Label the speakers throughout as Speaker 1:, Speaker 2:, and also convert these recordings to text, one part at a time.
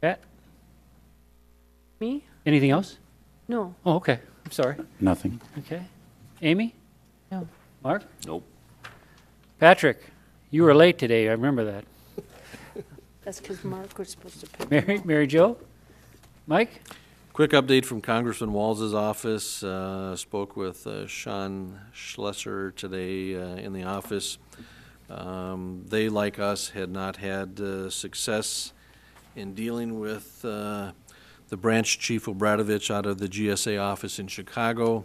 Speaker 1: Pat,
Speaker 2: Me?
Speaker 1: Eh, anything else?
Speaker 2: No.
Speaker 1: Oh, okay, I'm sorry.
Speaker 3: Nothing.
Speaker 1: Okay. Amy?
Speaker 2: No.
Speaker 1: Mark?
Speaker 4: Nope.
Speaker 1: Patrick, you were late today, I remember that.
Speaker 2: That's because Mark was supposed to pick.
Speaker 1: Mary, Mary Jo? Mike?
Speaker 4: Quick update from Congressman Walz's office. Uh, Spoke with uh, Sean Schlesser today uh, in the office. Um, They, like us, had not had uh, success in dealing with uh, the branch chief Obradovich out of the GSA office in Chicago.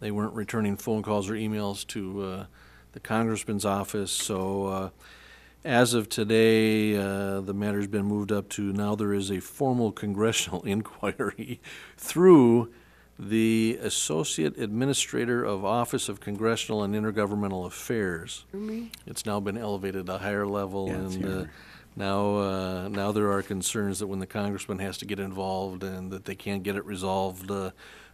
Speaker 4: They weren't returning phone calls or emails to uh, the congressman's office, so uh, as of today, uh, the matter's been moved up to now there is a formal congressional inquiry through the Associate Administrator of Office of Congressional and Intergovernmental Affairs. It's now been elevated to a higher level,
Speaker 3: Yeah, it's
Speaker 4: and uh,
Speaker 3: here.
Speaker 4: now, uh, now there are concerns that when the congressman has to get involved and that they can't get it resolved uh,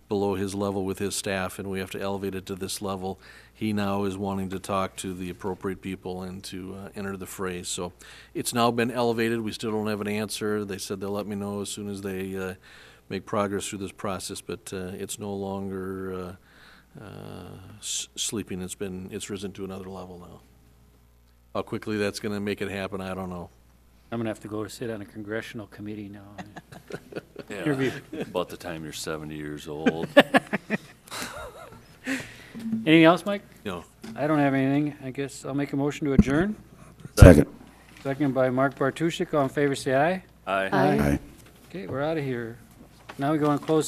Speaker 4: below his level with his staff, and we have to elevate it to this level. He now is wanting to talk to the appropriate people and to uh, enter the fray. So it's now been elevated. We still don't have an answer. They said they'll let me know as soon as they uh, make progress through this process, but uh, it's no longer uh, uh, s- sleeping. It's been, it's risen to another level now. How quickly that's going to make it happen, I don't know.
Speaker 1: I'm gonna have to go to sit on a congressional committee now.
Speaker 5: Yeah, about the time you're 70 years old.
Speaker 1: Anything else, Mike?
Speaker 4: No.
Speaker 1: I don't have anything. I guess I'll make a motion to adjourn.
Speaker 3: Second.
Speaker 1: Second by Mark Bartuszczyk. All in favor, say aye.
Speaker 5: I.
Speaker 3: Aye.
Speaker 1: Okay, we're out of here. Now we go on closed